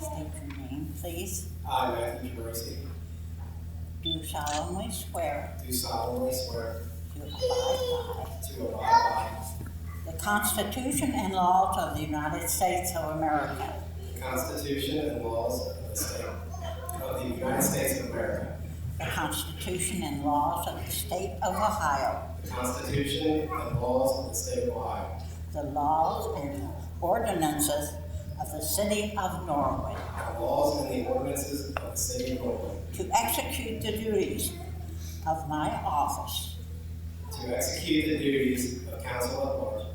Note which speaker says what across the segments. Speaker 1: State your name, please.
Speaker 2: I, Matthew Bracy,
Speaker 1: Do solemnly swear
Speaker 2: do solemnly swear
Speaker 1: to abide
Speaker 2: to abide
Speaker 1: by the Constitution and laws of the United States of America,
Speaker 2: by the Constitution and laws of the state of the United States of America,
Speaker 1: the Constitution and laws of the State of Ohio,
Speaker 2: the Constitution and laws of the state of Ohio,
Speaker 1: the laws and ordinances of the City of Norwood,
Speaker 2: the laws and the ordinances of the city of Norwood,
Speaker 1: to execute the duties of my office
Speaker 2: to execute the duties of council at large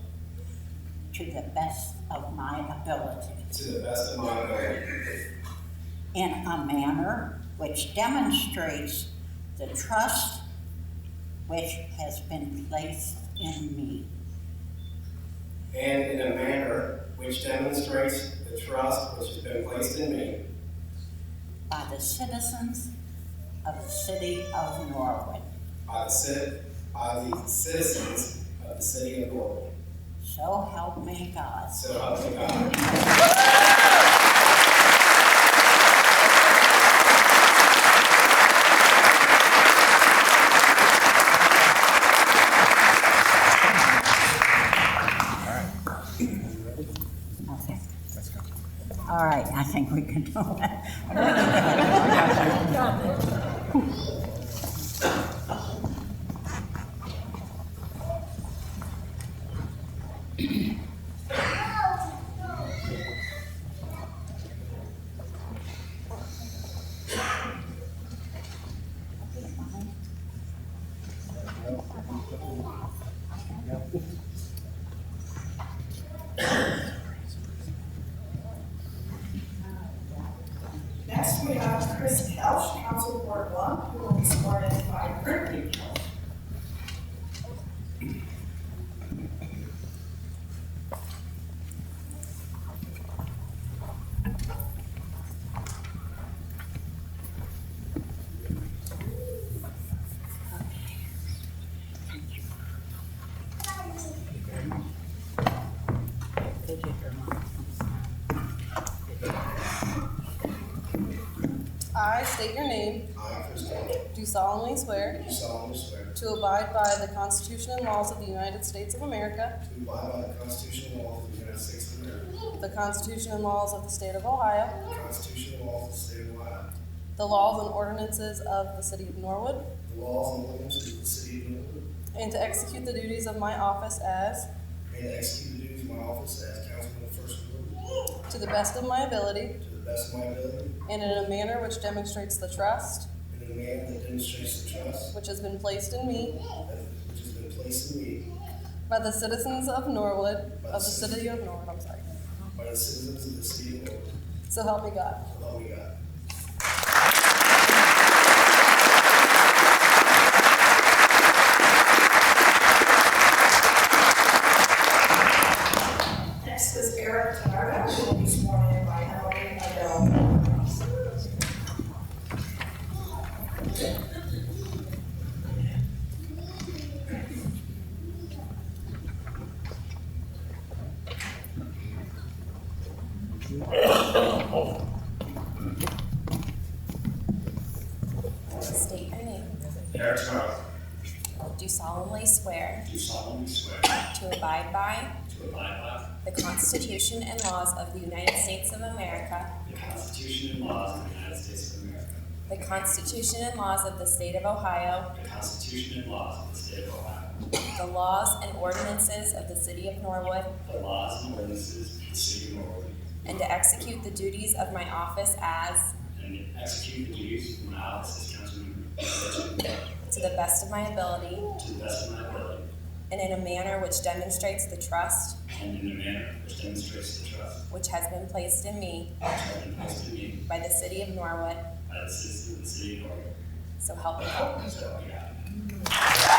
Speaker 1: to the best of my ability.
Speaker 2: to the best of my ability,
Speaker 1: in a manner which demonstrates the trust which has been placed in me.
Speaker 2: and in a manner which demonstrates the trust which has been placed in me
Speaker 1: By the citizens of the city of Norwood.
Speaker 2: by the cit, by the citizens of the city of Norwood.
Speaker 1: So help me God.
Speaker 2: So help me God.
Speaker 1: Okay. All right, I think we can do that.
Speaker 3: Next, we have Chris Kelch, Council Ward One, who will be sworn in by Kurt Nichols.
Speaker 1: Good to hear, Mom.
Speaker 4: I state your name,
Speaker 2: I, Chris
Speaker 4: do solemnly swear
Speaker 2: do solemnly swear
Speaker 4: to abide by the Constitution and laws of the United States of America,
Speaker 2: to abide by the Constitution and laws of the United States of America,
Speaker 4: the Constitution and laws of the State of Ohio,
Speaker 2: the Constitution and laws of the State of Ohio,
Speaker 4: the laws and ordinances of the City of Norwood,
Speaker 2: the laws and ordinances of the City of Norwood,
Speaker 4: and to execute the duties of my office as,
Speaker 2: and to execute the duties of my office as councilman of the First Ward
Speaker 4: to the best of my ability,
Speaker 2: to the best of my ability,
Speaker 4: and in a manner which demonstrates the trust
Speaker 2: and in a manner that demonstrates the trust
Speaker 4: which has been placed in me
Speaker 2: that- which has been placed in me
Speaker 4: by the citizens of Norwood, of the City of Norwood, I'm sorry.
Speaker 2: by the citizens of the City of Norwood.
Speaker 4: So help me God.
Speaker 2: So help me God.
Speaker 3: Next is Eric Tarada, who will be sworn in by Emily Adele Cross.
Speaker 5: State your name.
Speaker 2: Eric Charles.
Speaker 5: Do solemnly swear
Speaker 2: Do solemnly swear
Speaker 5: to abide by
Speaker 2: to abide
Speaker 5: the Constitution and laws of the United States of America,
Speaker 2: by the Constitution and laws of the United States of America,
Speaker 5: the Constitution and laws of the State of Ohio,
Speaker 2: the Constitution and laws of the State of Ohio,
Speaker 5: the laws and ordinances of the City of Norwood,
Speaker 2: the laws and ordinances of the City of Norwood,
Speaker 5: and to execute the duties of my office as,
Speaker 2: and execute the duties of my office as councilman of the First Ward
Speaker 5: to the best of my ability,
Speaker 2: to the best of my ability,
Speaker 5: and in a manner which demonstrates the trust
Speaker 2: and in a manner which demonstrates the trust
Speaker 5: which has been placed in me
Speaker 2: which has been placed in me
Speaker 5: by the City of Norwood,
Speaker 2: by the citizens of the City of Norwood.
Speaker 5: so help me God.
Speaker 2: So help me God.